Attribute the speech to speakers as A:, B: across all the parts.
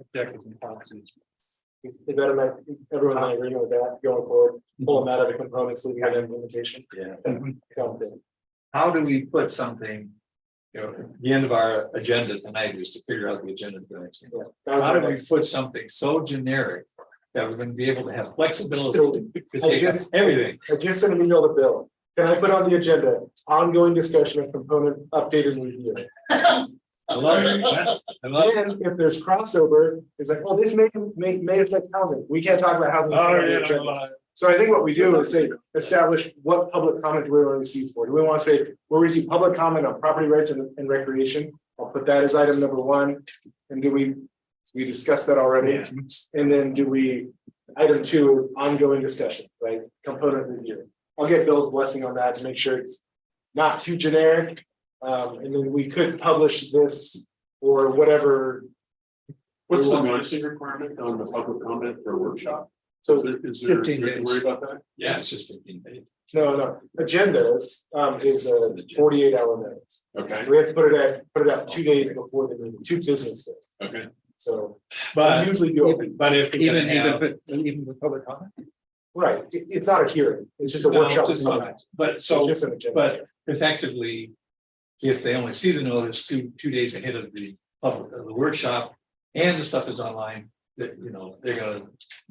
A: objectives and policies. They better make, everyone in agreement with that going forward, pull them out of the components, leaving out implementation.
B: Yeah.
A: Sounds good.
B: How do we put something? You know, the end of our agenda tonight is to figure out the agenda for next year.
A: Yeah.
B: How do we put something so generic that we're gonna be able to have flexibility to
A: I
B: take on
A: just-
B: everything?
A: I just sent an email to Bill. Can I put on the agenda, ongoing discussion of component updated review?
B: I love it. man. I love it.
A: Then if there's crossover, it's like, well, this may, may, may affect housing. We can't talk about housing.
B: Oh,
A: on the
B: yeah, I
A: agenda.
B: love it.
A: So I think what we do is say, establish what public comment do we want to receive for? Do we want to say, we'll receive public comment on property rights and and recreation? I'll put that as item number one. And do we, we discussed that already. And then do we, item two is ongoing discussion, right? Component review. I'll get Bill's blessing on that to make sure it's not too generic. Um, and then we could publish this or whatever.
C: What's the notice requirement on the public comment for a workshop?
A: So
C: Is there, is there, do
B: 15
C: you
B: days.
C: worry about that?
B: Yeah, it's just fifteen pages.
A: No, no, agendas, um, is a forty-eight hour minutes.
C: Okay,
A: We have to put it at, put it out two days before the meeting, two business days,
C: okay.
A: so we
B: But
A: usually do, it-
B: but if
C: Even-
B: even
C: even
B: even even with public comment.
A: right, it- it's not a hearing, it's just a workshop. It's
B: But so
A: just an agenda.
B: but effectively. If they only see the notice two, two days ahead of the public, of the workshop, and the stuff is online, that, you know, they're gonna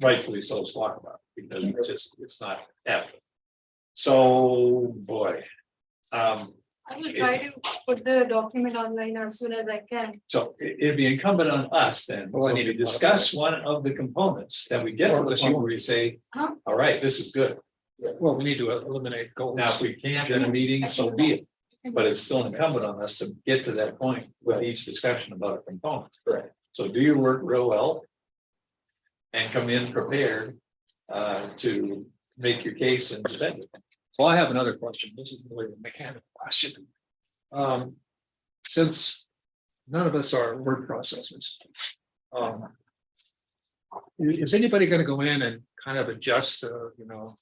B: rightfully so talk about. it, Because it's just, it's not after. So, boy. Um,
D: I will try to put the document online as soon as I can.
B: so it- it'd be incumbent on us then,
E: Well, I
B: when
E: think
B: we
E: it's one of
B: discuss one of the components, that we get to
E: Or
B: the
E: if
B: point
E: you-
B: where we say,
D: Huh?
B: all right, this is good.
E: Well, we need to eliminate goals.
B: Now, if we can't in a meeting, so be it. But it's still incumbent on us to get to that point with each discussion about a component.
A: Right.
B: So do your work real well. And come in prepared uh to make your case and defend it.
E: So I have another question. This is really a mechanical question. Um, since none of us are word processors. Um. i- Is anybody gonna go in and kind of adjust, uh, you know,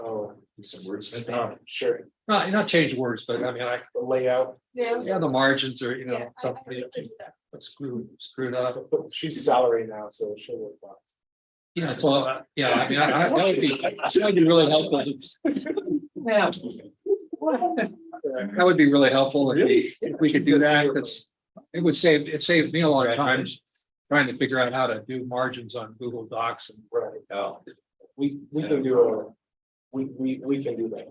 A: Oh,
B: Do some wordsmithing.
A: uh, sure,
E: not, not change words, but I mean, I,
A: the layout,
D: Yeah.
E: yeah, the margins are, you
D: Yeah,
E: know,
D: I- I
E: something
D: will do that.
E: screwed, screwed up.
A: she's salary now, so she'll work on. it.
E: Yeah, so, uh, yeah, I mean, I, I, that would be, that would be really helpful.
B: Yeah.
E: That would be really helpful. if we- If we could do that, that's, it would save, it saved me a lot of time trying to figure out how to do margins on Google Docs and.
A: Right,
B: Oh.
A: we, we can do a, we, we, we can do that.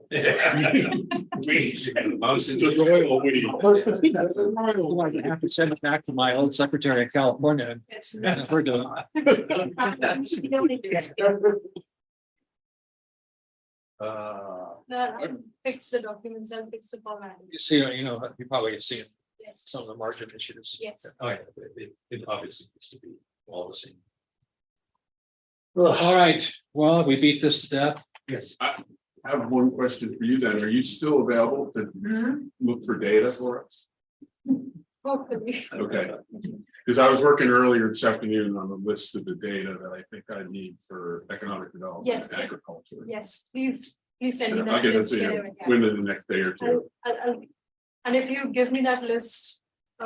E: Otherwise, I'd have to send it back to my old secretary in California.
D: Yes.
E: and we're doing-
D: You don't need to-
B: Uh,
D: No, I'll Fix the documents, I'll fix the format,
E: You see, you know, you probably have seen
D: yes,
E: some of the margin issues.
D: yes.
B: oh, yeah, it- it it obviously used to be all the same.
E: All right, well, we beat this to death.
B: Yes.
C: I have one question for you then. Are you still available
D: Mm-hmm.
C: to look for data for us?
D: Hopefully,
C: Okay. Because I was working earlier this afternoon on a list of the data that I think I need for economic development
D: Yes.
C: and agriculture.
D: yes, please, please send me
C: And If I
D: that.
C: get to
D: list
C: see you
D: whenever I can.
C: within the next day or two.
D: I'll- I'll- I'll- And if you give me that list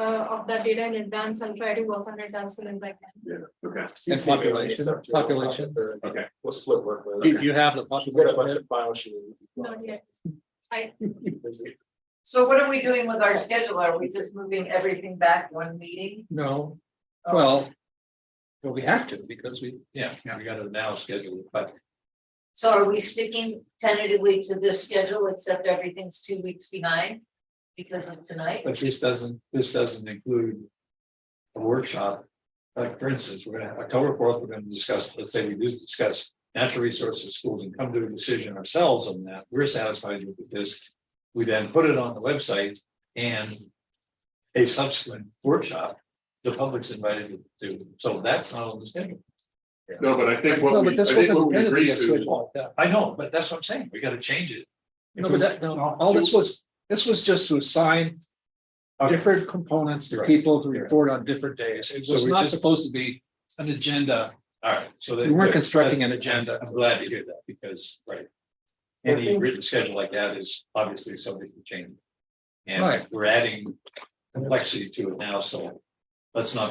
D: uh of that data in advance, I'll try to work on it as soon as I can.
C: Yeah, okay.
E: And population, population.
C: Okay.
A: We'll split workload.
E: You, you have the
A: She's got a bunch
E: possibility.
A: of files she.
D: Not yet.
F: So what are we doing with our schedule? Are we just moving everything back one meeting? Um,
E: No,
A: Oh.
E: well. Well, we have to because we,
B: Yeah, yeah, we got it now scheduled, but
F: So are we sticking tentatively to this schedule except everything's two weeks behind? Because of tonight?
B: but this doesn't, this doesn't include. A workshop, like for instance, we're gonna, October fourth, we're gonna discuss, let's say we do discuss natural resources, schools and come to a decision ourselves on that. We're satisfied with this. We then put it on the website and. A subsequent workshop, the public's invited to, so that's not on the schedule.
C: No, but I think
E: no,
C: what we,
E: but
C: I
E: this
C: think what
E: wasn't
C: we
E: meant to be
C: agreed
E: a
C: to
E: switch like that.
B: I know, but that's what I'm saying. We gotta change it.
E: No, but that, no, all this was, this was just to assign. Different components to
B: Right.
E: people to
B: Yeah.
E: report on different days. It
B: So
E: was
B: we
E: not
B: just-
E: supposed to be an agenda.
B: All right, so that.
E: We weren't constructing an agenda.
B: I'm glad to hear that because, right. Any written schedule like that is obviously subject to change. And
E: Right.
B: we're adding complexity to it now, so let's not